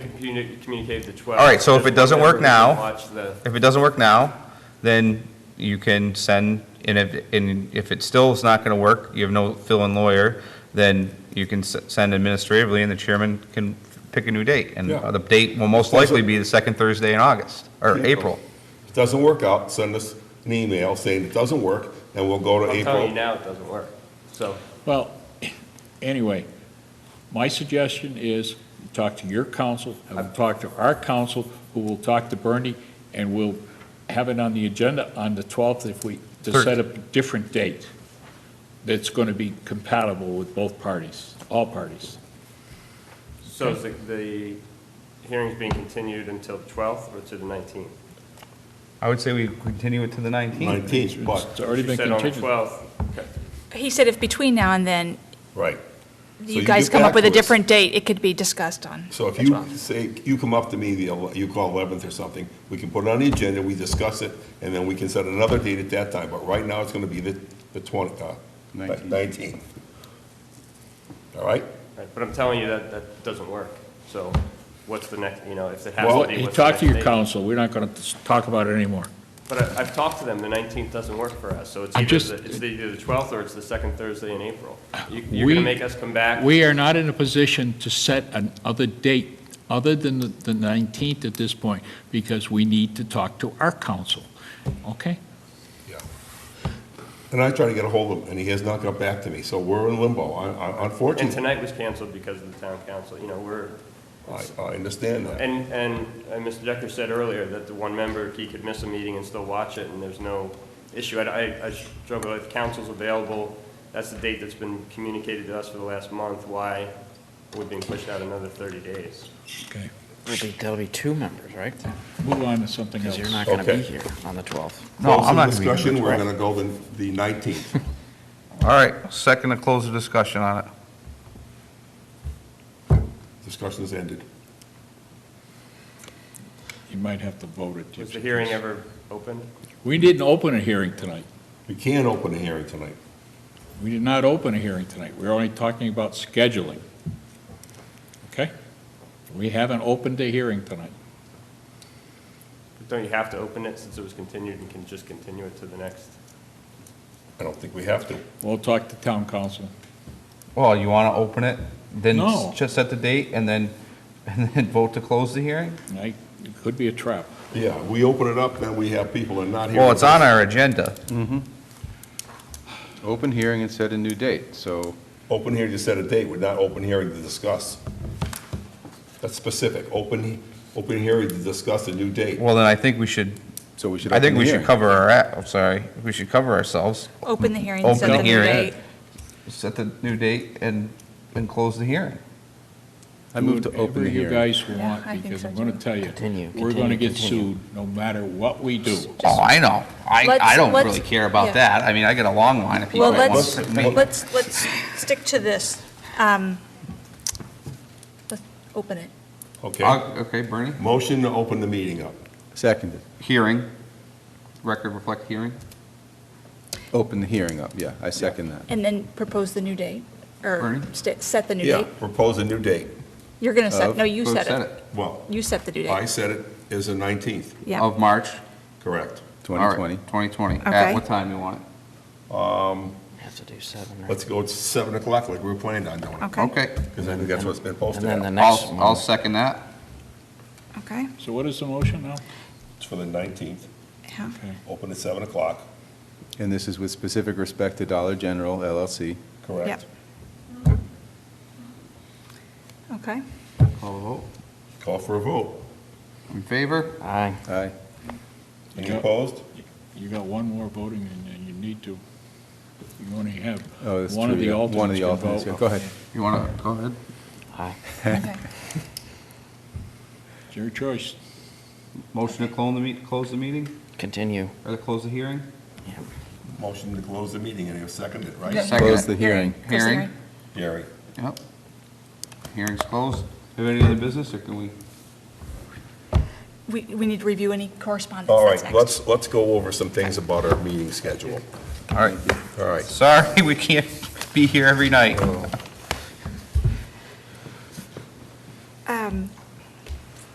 Communi- Communicate the 12th. All right, so if it doesn't work now- Watch the, If it doesn't work now, then you can send, and if, and if it still is not going to work, you have no fill-in lawyer, then you can s- send administratively, and the chairman can pick a new date. And Yeah. the date will most likely be the second Thursday in August, or Yeah. April. If it doesn't work out, send us an email saying it doesn't work, and we'll go to I'm telling you April. now, it doesn't work. So, Well, anyway, my suggestion is talk to your council, and we'll talk to our council, who will talk to Bernie, and we'll have it on the agenda on the 12th if we, to Third. set up a different date that's going to be compatible with both parties, all parties. so is the- the hearing's being continued until the 12th or to the 19th? I would say we continue it to the 19th. 19th, It's but, already You been said on the continued. 12th. Okay. He said if between now and then right. So you you guys get come back up with a to us. different date, it could be discussed on. So if the you 12th. say, you come up to me, the ele- you call 11th or something, we can put it on the agenda, we discuss it, and then we can set another date at that time, but right now it's going to be the the 20, uh, 19th. All right? Right, But I'm telling you that, that doesn't work. So what's the next, you know, if it has Well, to be, you what's the talk next to your date? council, we're not going to talk about it anymore. But I- I've talked to them, the 19th doesn't work for us, so it's I either, just- the- it's either the 12th or it's the second Thursday in April. You- You're going We- to make us come back? We are not in a position to set another date other than the- the 19th at this point, because we need to talk to our council, okay? And I try to get a hold of him, and he has not got back to me, so we're in limbo, I- I- And unfortunately. tonight was canceled because of the town council, you know, we're, I I understand that. and, and uh, Mr. Decker said earlier that the one member, he could miss a meeting and still watch it, and there's no issue. I- I, I struggle, if council's available, that's the date that's been communicated to us for the last month, why we're being pushed out another 30 days? Okay. It'll be, that'll be two members, right? Move on to something else. Because you're not going to Okay. be here on the 12th. No, Close I'm the not gonna be Discussion, here. we're going to go the the 19th. All right, second to close the discussion on it. Discussion's ended. You might have to vote it. Was the hearing ever open? We didn't open a hearing tonight. We can't open a hearing tonight. We did not open a hearing tonight. We're only talking about scheduling. Okay? We haven't opened a hearing tonight. Don't you have to open it since it was continued and can just continue it to the next? I don't think we have to. We'll talk to town council. Well, you want to open it, then s- No. just set the date, and then, and then vote to close the hearing? I- It could be a trap. Yeah, we open it up, then we have people that are not here. Well, it's on our agenda. Open hearing and set a new date, so Open hearing to set a date, we're not open hearing to discuss. That's specific, open, open hearing to discuss a new date. Well, then I think we should, so we should I think open the we should hearing. cover our, a- I'm sorry, we should cover ourselves. Open the hearing, Open set the the new hearing. date. set the new date and, and close the hearing. I move to open the Whatever you hearing. guys Yeah, I want, think because so, I'm going to too. tell you. Continue, We're going to continue, get continue. sued no matter what we do. Oh, I know. I, I Let's- don't really let's- care yeah. about that. I mean, I get a long line of people. Well, that want let's, to meet. let's, let's stick to this. Um, Let's open it. Okay, Uh, Okay, Bernie? motion to open the meeting up. Seconded. Hearing, record reflect hearing? Open the hearing up, yeah, I second that. And then propose the new date, or Bernie? sta- set the new Yeah, date. propose a new date. You're going to set, Of- no, you Who set said it. Well, You set the due I date. said it is the 19th, Yeah. Of March? correct. All right, 2020. 2020. Okay. At what time you want it? Have to do seven, right? Um, Let's go to 7 o'clock like we were planning on doing. Okay. Okay. Because I think that's what's been And posted then the out. next I'll, I'll one, second that. Okay. So what is the motion now? It's for the 19th, Yeah. Okay. open at 7 o'clock, And this is with specific respect to Dollar General LLC. correct? Okay. Call the vote. Call for a vote. In favor? aye. Aye. Any Yeah. opposed? You got one more voting, and- and you need to, you only have, Oh, that's one of true, the yeah. One alternates of the can alternates, yeah, vote. go ahead. You want to, go ahead. Aye. Okay. It's your choice. Motion to close the meet, close the meeting, Continue. or to close the hearing? Motion to close the meeting, and you seconded it, right? Yeah. Second Close it. the hearing. Close the Hearing. Gary? Yep. Hearing's closed. Have any other business, or can we? We, we need to review any correspondence. All That's right, next. let's, let's go over some things about our meeting schedule. All right, All right, sorry, we can't be here every night. Um,